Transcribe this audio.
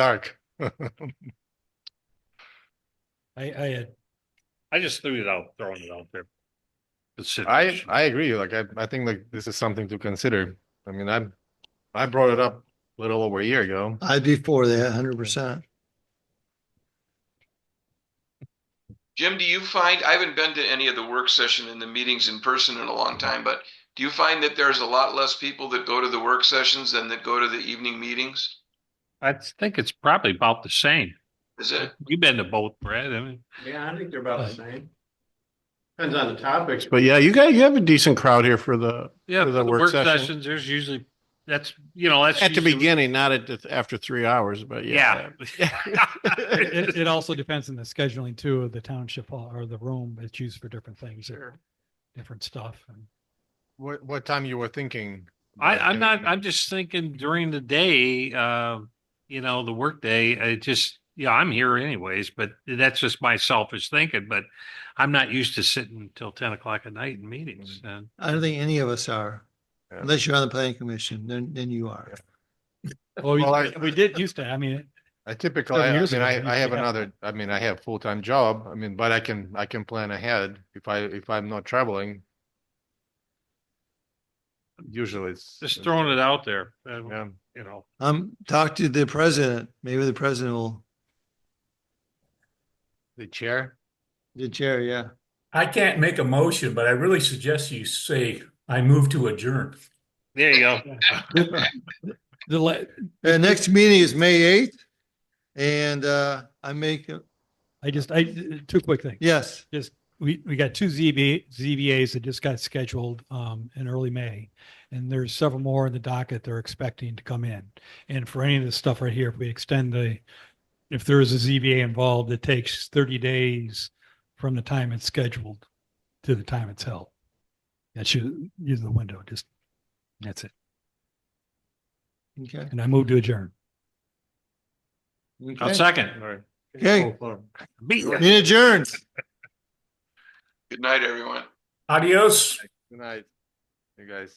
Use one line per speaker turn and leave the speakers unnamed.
dark.
I, I had,
I just threw it out, throwing it out there.
I,
Consideration.
I agree. Like, I, I think like this is something to consider. I mean, I, I brought it up a little over a year ago.
I'd be for that hundred percent.
Jim, do you find, I haven't been to any of the work session and the meetings in person in a long time, but do you find that there's a lot less people that go to the work sessions than that go to the evening meetings?
I think it's probably about the same.
Is it?
You've been to both, Brad. I mean,
Yeah, I think they're about the same. Depends on the topics, but
But yeah, you got, you have a decent crowd here for the,
yeah,
For the
the
work
work
session.
sessions, there's usually, that's, you know, that's.
at the
usually-
beginning, not at, the- after three hours, but
Yeah.
yeah.
it, it also depends on the scheduling too of the township hall or the room that's used for different things or different stuff. and-
What, what time you were thinking?
I,
about
I'm
doing
not,
it?
I'm just thinking during the day, uh, you know, the workday, it just, yeah, I'm here anyways, but that's just my selfish thinking, but I'm not used to sitting till ten o'clock at night in meetings
Mm.
and.
I don't think any of us are,
Yeah.
unless you're on the planning commission, then, then you are.
Well,
Well, I-
we- we did used to, I mean,
I typically,
Seven
I I
years
mean,
ago,
I,
you
I have
should have
another, I mean, I have full-time job, I mean, but I can, I can plan ahead if I, if I'm not traveling. Usually it's.
Just throwing it out there, uh,
Yeah.
you know,
Um, talk to the president, maybe the president will,
The chair?
the chair, yeah.
I can't make a motion, but I really suggest you say, I move to adjourn.
there you go.
the, la-
The next meeting is May eighth. And, uh, I make, a-
I just, I, two quick things.
yes,
just, we, we got two ZB, ZBAs that just got scheduled, um, in early May. And there's several more in the docket they're expecting to come in. And for any of this stuff right here, if we extend the, if there is a ZBA involved, it takes thirty days from the time it's scheduled to the time it's held. That should use the window, just, that's it.
okay.
And I move to adjourn.
I'll
Okay,
second.
Okay.
Beat ya.
meeting adjourned.
Good night, everyone.
Adios.
Good night, you guys.